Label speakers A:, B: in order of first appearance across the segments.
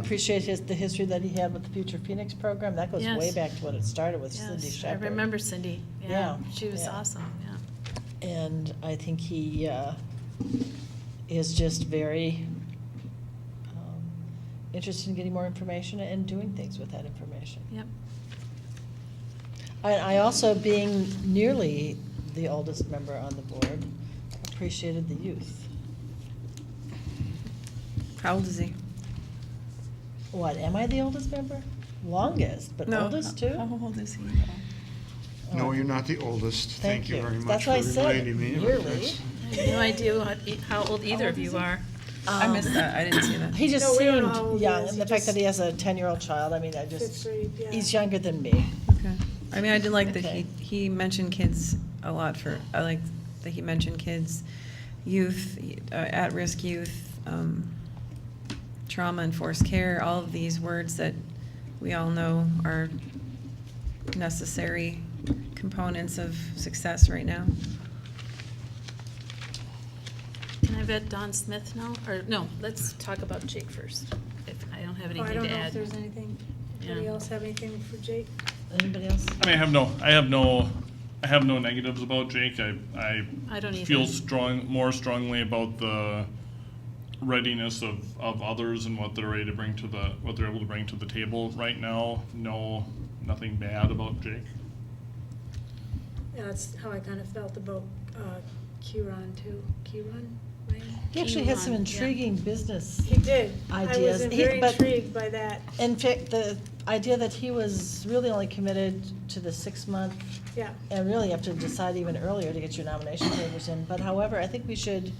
A: appreciate his, the history that he had with the Future Phoenix program. That goes way
B: Yes.
A: back to when it started with Cindy
B: Yes, I
A: Shepherd.
B: remember Cindy. Yeah,
A: Yeah,
B: she was
A: yeah.
B: awesome, yeah.
A: And I think he uh, is just very um, interested in getting more information and doing things with that information.
B: Yep,
A: I, I also, being nearly the oldest member on the board, appreciated the youth.
C: How old is he?
A: What, am I the oldest member? Longest, but
C: No,
A: oldest
C: how-
A: too?
C: How old is he?
A: Oh.
D: No, you're not the oldest.
A: Thank
D: Thank you
A: you.
D: very much
A: That's
D: for
A: why I said
D: reminding me.
A: yearly.
B: I have no idea what e- how old either of you are.
A: Um,
C: I missed that, I didn't see that.
A: He just
E: No, we don't know how old
A: seemed
E: he
A: young,
E: is.
A: and
E: He
A: the fact
E: just-
A: that he has a ten-year-old child, I mean, I
E: Fifth
A: just,
E: grade, yeah.
A: he's younger than me.
C: Okay. I mean, I did like that he,
A: Okay.
C: he mentioned kids a lot for, I like that he mentioned kids, youth, uh, at-risk youth, um, trauma and forced care, all of these words that we all know are necessary components of success right now.
B: Can I vet Don Smith now? Or, no, let's talk about Jake first, if I don't have
E: Oh, I
B: anything
E: don't
B: to
E: know if
B: add.
E: there's anything, anybody
B: Yeah.
E: else have anything for Jake?
A: Anybody else?
F: I mean, I have no, I have no, I have no negatives about Jake. I, I,
B: I don't either.
F: feel strong, more strongly about the readiness of, of others and what they're ready to bring to the, what they're able to bring to the table right now. No, nothing bad about Jake.
E: Yeah, That's how I kind of felt about uh, Kieran too. Kieran, right?
A: He actually had some
B: Elon, yeah.
A: intriguing business.
E: He did. I
A: Ideas.
E: was
A: He-
E: very
A: but-
E: intrigued by that.
A: In fact, the idea that he was really only committed to the six-month,
E: Yeah,
A: and really you have to decide even earlier to get your nomination papers in, but however, I think we should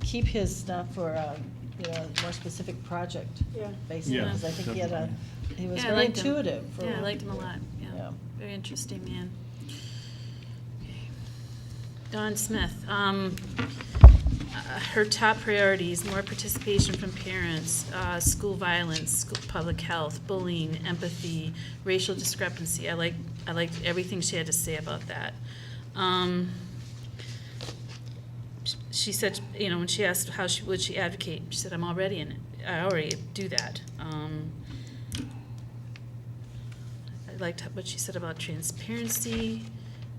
A: keep his stuff for, um, you know, a more specific project
E: yeah.
A: basis,
F: Yeah,
A: because I think he had a, he was
B: Yeah, I
A: very
B: liked him.
A: intuitive. for
B: Yeah, I
A: what
B: liked
A: to
B: him a
A: do.
B: lot, yeah.
A: Yeah.
B: Very interesting man. Don Smith, um, uh, her top priorities, more participation from parents, uh, school violence, school, public health, bullying, empathy, racial discrepancy. I like, I liked everything she had to say about that. Um, sh- she said, you know, when she asked how she, would she advocate, she said, I'm already in it. I already do that. Um, I liked how- what she said about transparency.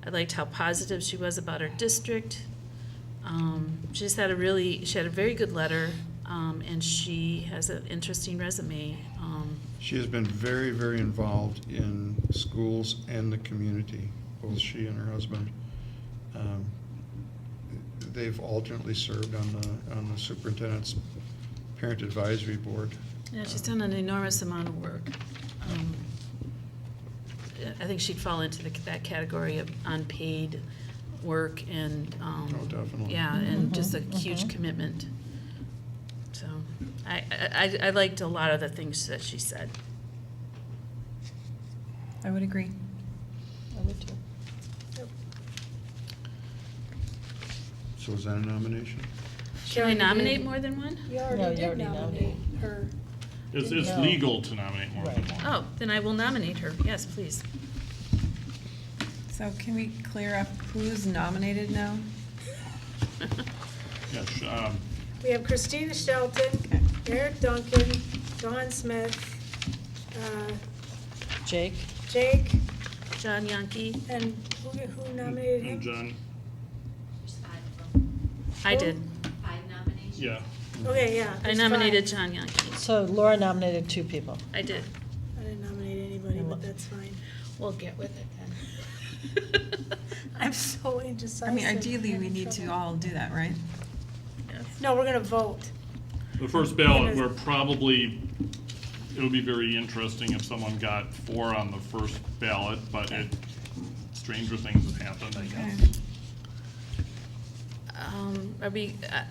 B: I liked how positive she was about her district. Um, she just had a really, she had a very good letter, um, and she has an interesting resume. Um,
D: She has been very, very involved in schools and the community, both she and her husband. Um, They've alternately served on the, on the superintendent's parent advisory board. Um,
B: yeah, she's done an enormous amount of work. Um, I think she'd fall into the, that category of unpaid work and, um,
D: Oh, definitely.
B: Yeah, and just a
A: Mhm,
B: huge
A: mhm.
B: commitment. So, I, I, I- I liked a lot of the things that she said.
C: I would agree.
A: I would too.
D: So is that a nomination?
E: She
B: Can I
E: already did.
B: nominate more than one?
E: You
A: No, you
E: already did
A: already
E: nominate her.
F: It's, it's
A: No.
F: legal to nominate more than
A: Right.
F: one.
B: Oh, then I will nominate her. Yes, please.
C: So can we clear up who's nominated now?
F: Yeah, sh- um,
E: We have Christina Shelton, Eric Duncan, Don Smith, uh,
A: Jake?
E: Jake,
B: John Yankee.
E: and who who nominated
F: and
E: him?
F: John,
G: There's five of them,
B: I did.
G: five nominations.
F: yeah.
E: Okay, yeah.
B: I
E: there's
B: nominated
E: five.
B: John Yankee.
A: So Laura nominated two people.
B: I did.
E: I didn't nominate anybody, but that's fine.
B: We'll get with it then.
E: I'm so indecisive.
C: I mean, ideally,
E: I'm
C: we
E: in
C: need to
E: trouble.
C: all do that, right?
B: Yes.
E: No, we're gonna vote.
F: The first ballot, we're probably, it would be very interesting if someone got four on the first ballot, but it, stranger things have happened, I guess.
B: Um, Are we, uh,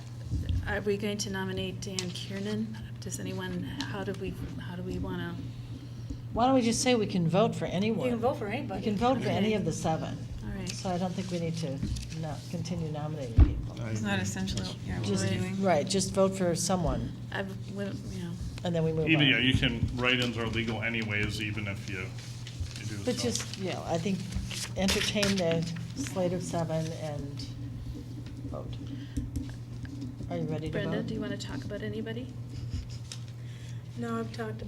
B: are we going to nominate Dan Kiernan? Does anyone, how do we, how do we want to,
A: Why don't we just say we can vote for anyone?
E: You can vote for
A: We
E: anybody.
A: can vote for any
B: Okay.
A: of the seven,
B: all right.
A: so I don't think we need to no- continue nominating people.
D: I
C: It's not
D: agree.
C: essential,
D: That's-
C: yeah, what
B: Just-
C: we're doing.
A: Right, just vote for someone,
B: I've, went- you know,
A: and then we move on.
F: Even, yeah, you can, write-ins are legal anyways, even if you, you do.
A: But
F: so.
A: just, you know, I think entertain the slate of seven and vote. Are you ready to vote?
B: Brenda, do you want to talk about anybody?
E: No, I've talked